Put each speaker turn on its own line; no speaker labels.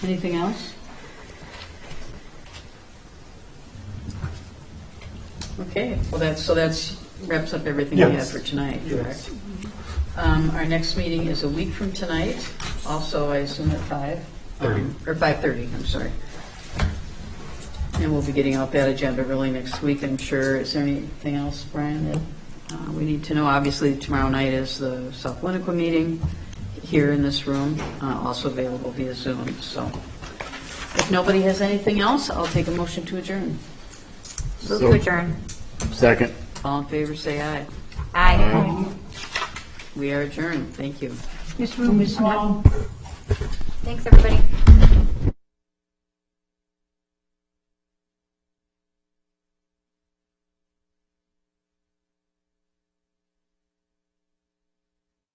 Anything else? Okay, well, that's, so that's wraps up everything we had
Yes.
for tonight,
Yes.
correct? Um, Our next meeting is a week from tonight, also, I assume at five?
Thirty.
Um, Or 5:30, I'm sorry. And we'll be getting out that agenda really next week, I'm sure. Is there anything else, Brian, that uh, we need to know? Obviously, tomorrow night is the South Winnequa meeting here in this room, uh, also available via Zoom, so. If nobody has anything else, I'll take a motion to adjourn.
Move to adjourn.
Second.
All in favor, say aye.
Aye.
We are adjourned, thank you.
This room is now
Thanks, everybody.